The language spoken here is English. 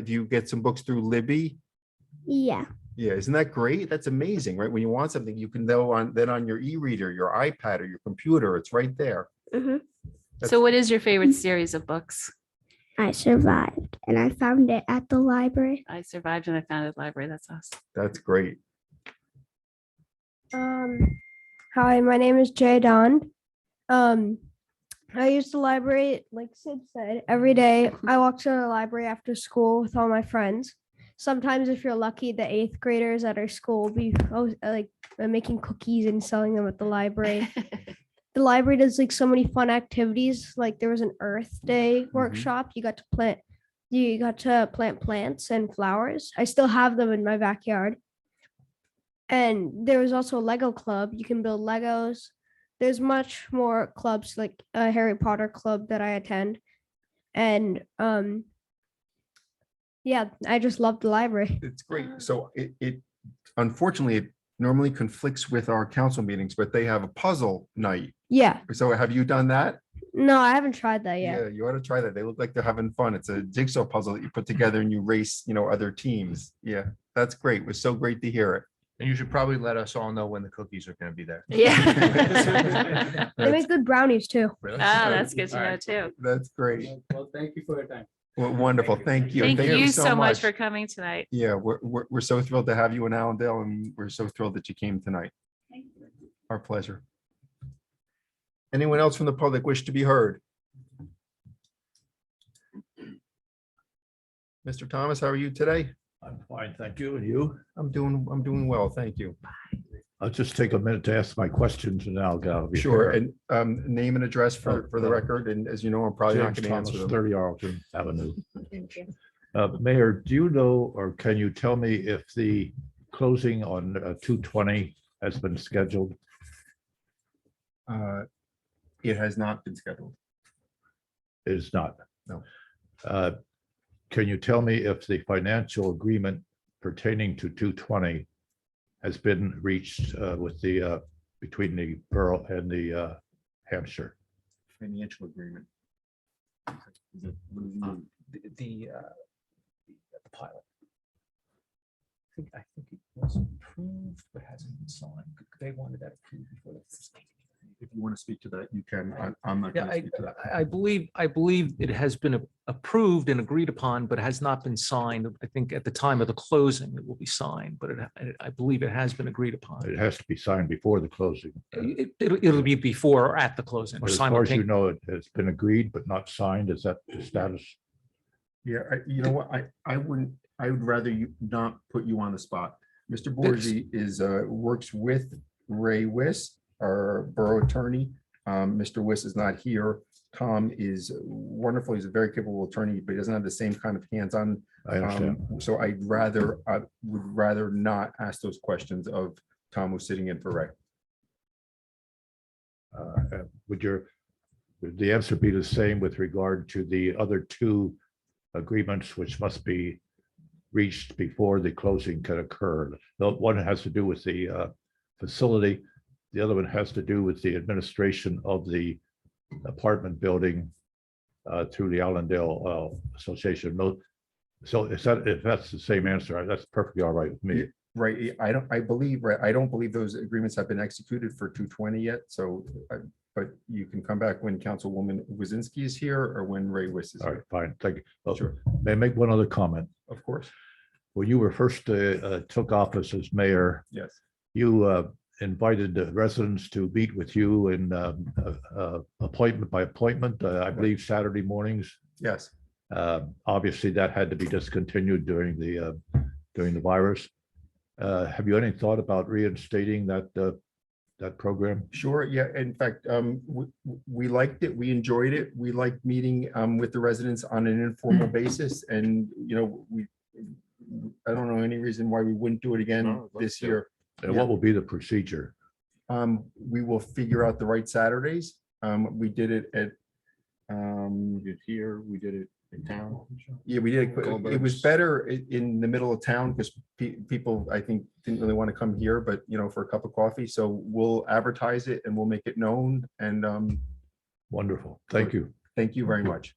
do you get some books through Libby? Yeah. Yeah, isn't that great? That's amazing, right? When you want something, you can go on, then on your e-reader, your iPad or your computer, it's right there. Uh-huh. That's- So what is your favorite series of books? I survived and I found it at the library. I survived and I founded library. That's awesome. That's great. Um, hi, my name is Jay Don. Um, I use the library, like Sid said, every day. I walk to the library after school with all my friends. Sometimes, if you're lucky, the eighth graders at our school will be oh, like uh, making cookies and selling them at the library. the library does like so many fun activities. Like there was an Earth Day workshop. You got to plant, you got to plant plants and flowers. I still have them in my backyard. And there was also a Lego club. You can build Legos. There's much more clubs like a Harry Potter club that I attend. And um yeah, I just love the library. It's great. So it, it unfortunately, it normally conflicts with our council meetings, but they have a puzzle night. Yeah. So have you done that? No, I haven't tried that yet. You ought to try that. They look like they're having fun. It's a jigsaw puzzle that you put together and you race, you know, other teams. Yeah, that's great. It was so great to hear it. And you should probably let us all know when the cookies are gonna be there. Yeah. They That's, make good brownies too. Oh, Really? that's good to know too. that's great. Well, thank you for your time. Well, Wonderful. Thank you. Thank you so much for coming tonight. Yeah, we're, we're, we're so thrilled to have you in Allendale and we're so thrilled that you came tonight. Our pleasure. Anyone else from the public wish to be heard? Mr. Thomas, how are you today? I'm fine, thank you. And you? I'm doing, I'm doing well, thank you. I'll just take a minute to ask my questions and I'll go. over Sure, here. Oh, uh, and um, name and address for, for the record, and as you know, I'm probably not James going to answer Thomas, them. Thirty Arlington Avenue. Uh, Mayor, do you know, or can you tell me if the closing on uh, two twenty has been scheduled? Uh, It has not been scheduled. It Is not? No. Uh, Can you tell me if the financial agreement pertaining to two twenty has been reached uh, with the, uh, between the borough and the uh, Hampshire? Financial agreement. Um, The, the, uh, the pilot. I think, I think it was approved, but hasn't been signed. They wanted that approved before the. If you want to speak to that, you can. I- I'm not Yeah, going to I, speak to that. I- I believe, I believe it has been a- approved and agreed upon, but has not been signed. I think at the time of the closing, it will be signed, but it, I- I believe it has been agreed It upon. has to be signed before the closing. uh, It, it'll, it'll be before or at the closing. or But as far as you simultaneous- know, it has been agreed but not signed. Is that the status? Yeah, I- you know what, I, I wouldn't, I would rather you not put you on the spot. Mr. Borgi is, uh, works with Ray Wiss, our borough attorney. Um, Mr. Wiss is not here. Tom is wonderful. He's a very capable attorney, but he doesn't have the same kind of hands-on. I understand. um, So I'd rather, I would rather not ask those questions of Tom who's sitting in for Ray. Uh, Would your, would the answer be the same with regard to the other two agreements which must be reached before the closing can occur? The One has to do with the uh, facility. The other one has to do with the administration of the apartment building uh, through the Allendale uh, Association. Mo- So is that, if that's the same answer, that's perfectly all right with me. Right, I don't, I believe, right, I don't believe those agreements have been executed for two twenty yet, so, uh, but you can come back when Councilwoman Wazinski is here or when Ray Wiss is All here. right, fine, thank you. Well, Sure. May I make one other comment? Of course, When you were first, uh, uh, took office as mayor, yes. you uh, invited the residents to meet with you in um, uh, uh, appointment by appointment, uh, I believe Saturday mornings. Yes, Uh, Obviously, that had to be discontinued during the, uh, during the virus. Uh, Have you any thought about reinstating that, uh, that program? sure, yeah, in fact, um, we, we liked it, we enjoyed it, we liked meeting, um, with the residents on an informal Mm. basis, and, you know, we, I don't know any reason why we wouldn't do it again No, let's this do it. year. And what will be the procedure? Um, we will figure out the right Saturdays. Um, we did it at, um, did here, we did it in town. yeah, we did. it qu- It was Goldberg's. better i- in the middle of town because people, I think, didn't really want to come here, but you know, for a cup of coffee. So we'll advertise it and we'll make it known. And, um, Wonderful, thank you. thank you very much.